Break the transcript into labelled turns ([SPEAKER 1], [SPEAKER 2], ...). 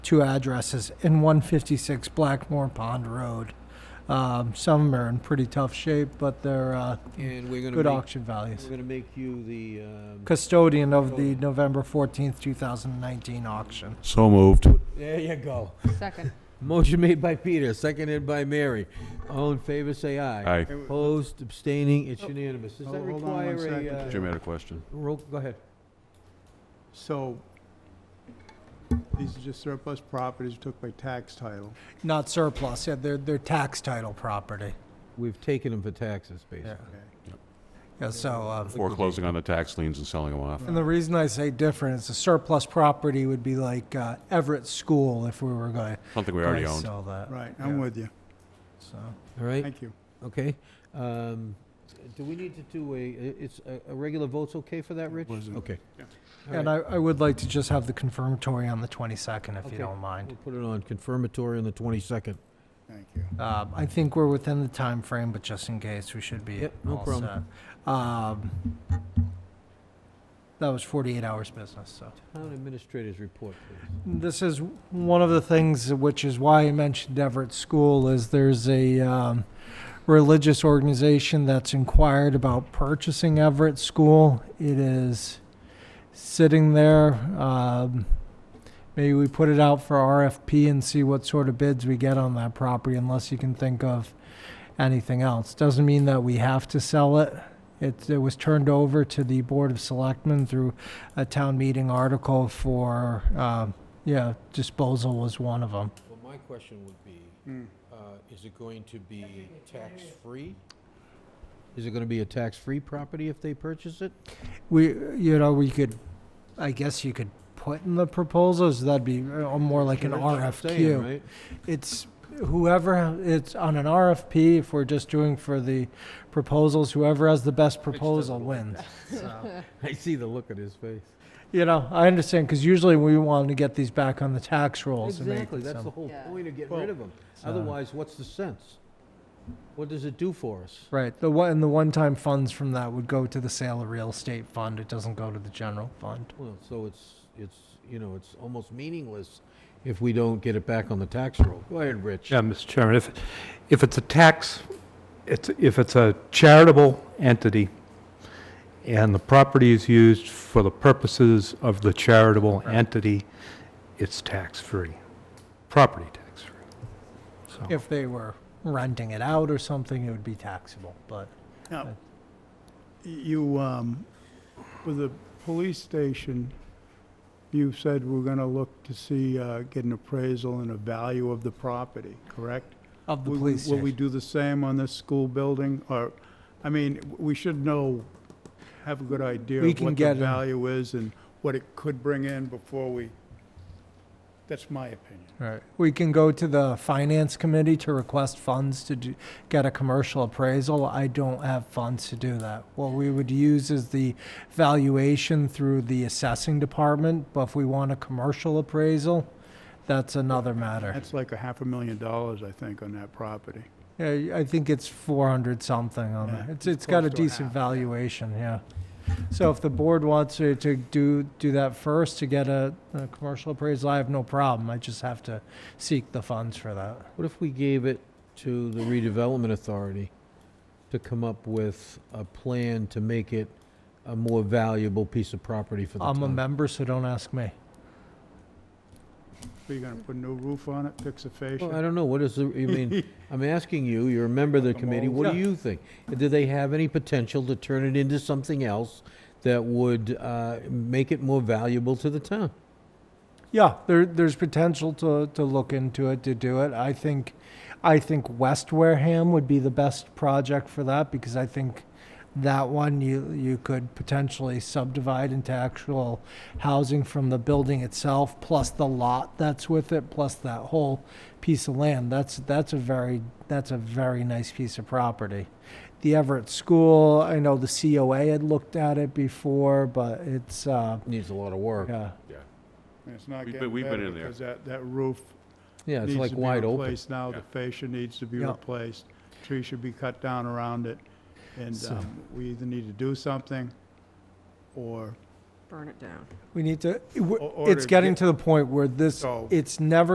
[SPEAKER 1] two addresses in 156 Blackmore Pond Road. Um, Some of 'em are in pretty tough shape, but they're uh,
[SPEAKER 2] And we're gonna
[SPEAKER 1] good
[SPEAKER 2] make,
[SPEAKER 1] auction
[SPEAKER 2] we're
[SPEAKER 1] values.
[SPEAKER 2] gonna make you the, um,
[SPEAKER 1] Custodian of the November 14th, 2019 auction.
[SPEAKER 3] So moved.
[SPEAKER 2] there you go.
[SPEAKER 4] Second.
[SPEAKER 2] Motion made by Peter, seconded by Mary. All in favor, say aye.
[SPEAKER 3] Aye.
[SPEAKER 2] Opposed, abstaining, it's unanimous. Does
[SPEAKER 5] Oh,
[SPEAKER 2] that
[SPEAKER 5] hold on one
[SPEAKER 2] require
[SPEAKER 5] second,
[SPEAKER 2] a, uh,
[SPEAKER 5] Jim.
[SPEAKER 3] Jim had a question.
[SPEAKER 2] roll, go ahead.
[SPEAKER 5] So, these are just surplus properties took by tax title.
[SPEAKER 1] Not surplus, yeah, they're, they're tax title property.
[SPEAKER 2] We've taken them for taxes, basically.
[SPEAKER 1] Yeah, Yeah, so, uh,
[SPEAKER 3] Foreclosing on the tax liens and selling them off.
[SPEAKER 1] and the reason I say different is the surplus property would be like uh, Everett School if we were going
[SPEAKER 3] Something we already
[SPEAKER 1] to
[SPEAKER 3] owned.
[SPEAKER 1] sell that.
[SPEAKER 5] Right, I'm with you.
[SPEAKER 1] So,
[SPEAKER 2] All right,
[SPEAKER 5] Thank you.
[SPEAKER 2] okay. Um, do we need to do a, i- it's, a, a regular vote's okay for that, Rich? Okay. All
[SPEAKER 1] And
[SPEAKER 2] right,
[SPEAKER 1] I, I would like to just have the confirmatory on the 22nd, if
[SPEAKER 2] Okay.
[SPEAKER 1] you don't mind.
[SPEAKER 2] We'll put it on confirmatory on the twenty-second.
[SPEAKER 5] Thank you.
[SPEAKER 1] Um, I think we're within the time frame, but just in case, we should be
[SPEAKER 2] Yep, no
[SPEAKER 1] all
[SPEAKER 2] problem.
[SPEAKER 1] set. Um, That was 48 hours business, so.
[SPEAKER 2] Town administrators report, please.
[SPEAKER 1] This is one of the things which is why I mentioned Everett School is there's a um, religious organization that's inquired about purchasing Everett School. It is sitting there. Um, maybe we put it out for RFP and see what sort of bids we get on that property, unless you can think of anything else. Doesn't mean that we have to sell it. It, it was turned over to the Board of Selectmen through a town meeting article for, uh, yeah, disposal was one of them.
[SPEAKER 2] Well, my question would be,
[SPEAKER 5] Mm.
[SPEAKER 2] uh, is it going to be tax-free? Is it gonna be a tax-free property if they purchase it?
[SPEAKER 1] We, you know, we could, I guess you could put in the proposals, that'd be uh, more like an
[SPEAKER 2] That's what I'm saying,
[SPEAKER 1] RFQ.
[SPEAKER 2] right?
[SPEAKER 1] It's whoever, it's on an RFP, if we're just doing for the proposals, whoever has the best proposal wins. So,
[SPEAKER 2] I see the look on his face.
[SPEAKER 1] You know, I understand, because usually we want to get these back on the tax rolls and make
[SPEAKER 2] Exactly, that's the
[SPEAKER 1] some-
[SPEAKER 2] whole
[SPEAKER 4] Yeah.
[SPEAKER 2] point of getting
[SPEAKER 5] Well,
[SPEAKER 2] rid of them.
[SPEAKER 1] so-
[SPEAKER 2] Otherwise, what's the sense? What does it do for us?
[SPEAKER 1] Right, the one, and the one-time funds from that would go to the sale of real estate fund, it doesn't go to the general fund.
[SPEAKER 2] Well, so it's, it's, you know, it's almost meaningless if we don't get it back on the tax roll. Go ahead, Rich.
[SPEAKER 6] Yeah, Mr. Chairman, if, if it's a tax, it's, if it's a charitable entity and the property is used for the purposes of the charitable entity, it's tax-free, property tax-free. So,
[SPEAKER 1] If they were renting it out or something, it would be taxable, but
[SPEAKER 5] Now, you, um, with the police station, you said we're gonna look to see, uh, get an appraisal and a value of the property, correct?
[SPEAKER 1] of the
[SPEAKER 5] Will we-
[SPEAKER 1] police
[SPEAKER 5] Will we
[SPEAKER 1] station.
[SPEAKER 5] do the same on this school building, or, I mean, we should know, have a good idea
[SPEAKER 1] We
[SPEAKER 5] of
[SPEAKER 1] can
[SPEAKER 5] what
[SPEAKER 1] get
[SPEAKER 5] the
[SPEAKER 1] an-
[SPEAKER 5] value is and what it could bring in before we, that's my opinion.
[SPEAKER 1] Right, we can go to the finance committee to request funds to do, get a commercial appraisal. I don't have funds to do that. What we would use is the valuation through the assessing department, but if we want a commercial appraisal, that's another matter.
[SPEAKER 5] That's like a half a million dollars, I think, on that property.
[SPEAKER 1] Yeah, I think it's four hundred something on
[SPEAKER 5] Yeah,
[SPEAKER 1] it. It's,
[SPEAKER 5] it's
[SPEAKER 1] it's got a
[SPEAKER 5] close to a
[SPEAKER 1] decent
[SPEAKER 5] half, yeah.
[SPEAKER 1] valuation, yeah. So if the board wants to, to do, do that first to get a, a commercial appraisal, I have no problem. I just have to seek the funds for that.
[SPEAKER 2] What if we gave it to the redevelopment authority to come up with a plan to make it a more valuable piece of property for the
[SPEAKER 1] I'm a
[SPEAKER 2] town?
[SPEAKER 1] member, so don't ask me.
[SPEAKER 5] Are you gonna put a new roof on it, fix the
[SPEAKER 2] Well, I
[SPEAKER 5] fascia?
[SPEAKER 2] don't know, what is the, I mean, I'm asking you, you're a member of the committee, what do
[SPEAKER 1] Yeah.
[SPEAKER 2] you think? Do they have any potential to turn it into something else that would uh, make it more valuable to the town?
[SPEAKER 1] Yeah, there, there's potential to, to look into it, to do it. I think, I think West Wareham would be the best project for that because I think that one you, you could potentially subdivide into actual housing from the building itself, plus the lot that's with it, plus that whole piece of land. That's, that's a very, that's a very nice piece of property. The Everett School, I know the COA had looked at it before, but it's, uh,
[SPEAKER 2] Needs a lot of work.
[SPEAKER 1] yeah.
[SPEAKER 5] And It's not
[SPEAKER 3] We've been-
[SPEAKER 5] getting
[SPEAKER 3] we've been
[SPEAKER 5] better
[SPEAKER 3] in there.
[SPEAKER 5] because that, that roof
[SPEAKER 2] Yeah, it's
[SPEAKER 5] needs
[SPEAKER 2] like
[SPEAKER 5] to be
[SPEAKER 2] wide open.
[SPEAKER 5] replaced now. The
[SPEAKER 3] Yeah.
[SPEAKER 5] fascia needs to be
[SPEAKER 1] Yeah.
[SPEAKER 5] replaced. Trees should be cut down around it. And
[SPEAKER 1] So-
[SPEAKER 5] um, we either need to do something or
[SPEAKER 4] burn it down.
[SPEAKER 1] We need to, w-
[SPEAKER 5] Or- or
[SPEAKER 1] it's
[SPEAKER 5] to
[SPEAKER 1] getting
[SPEAKER 5] get-
[SPEAKER 1] to the point where this,
[SPEAKER 5] So-
[SPEAKER 1] it's never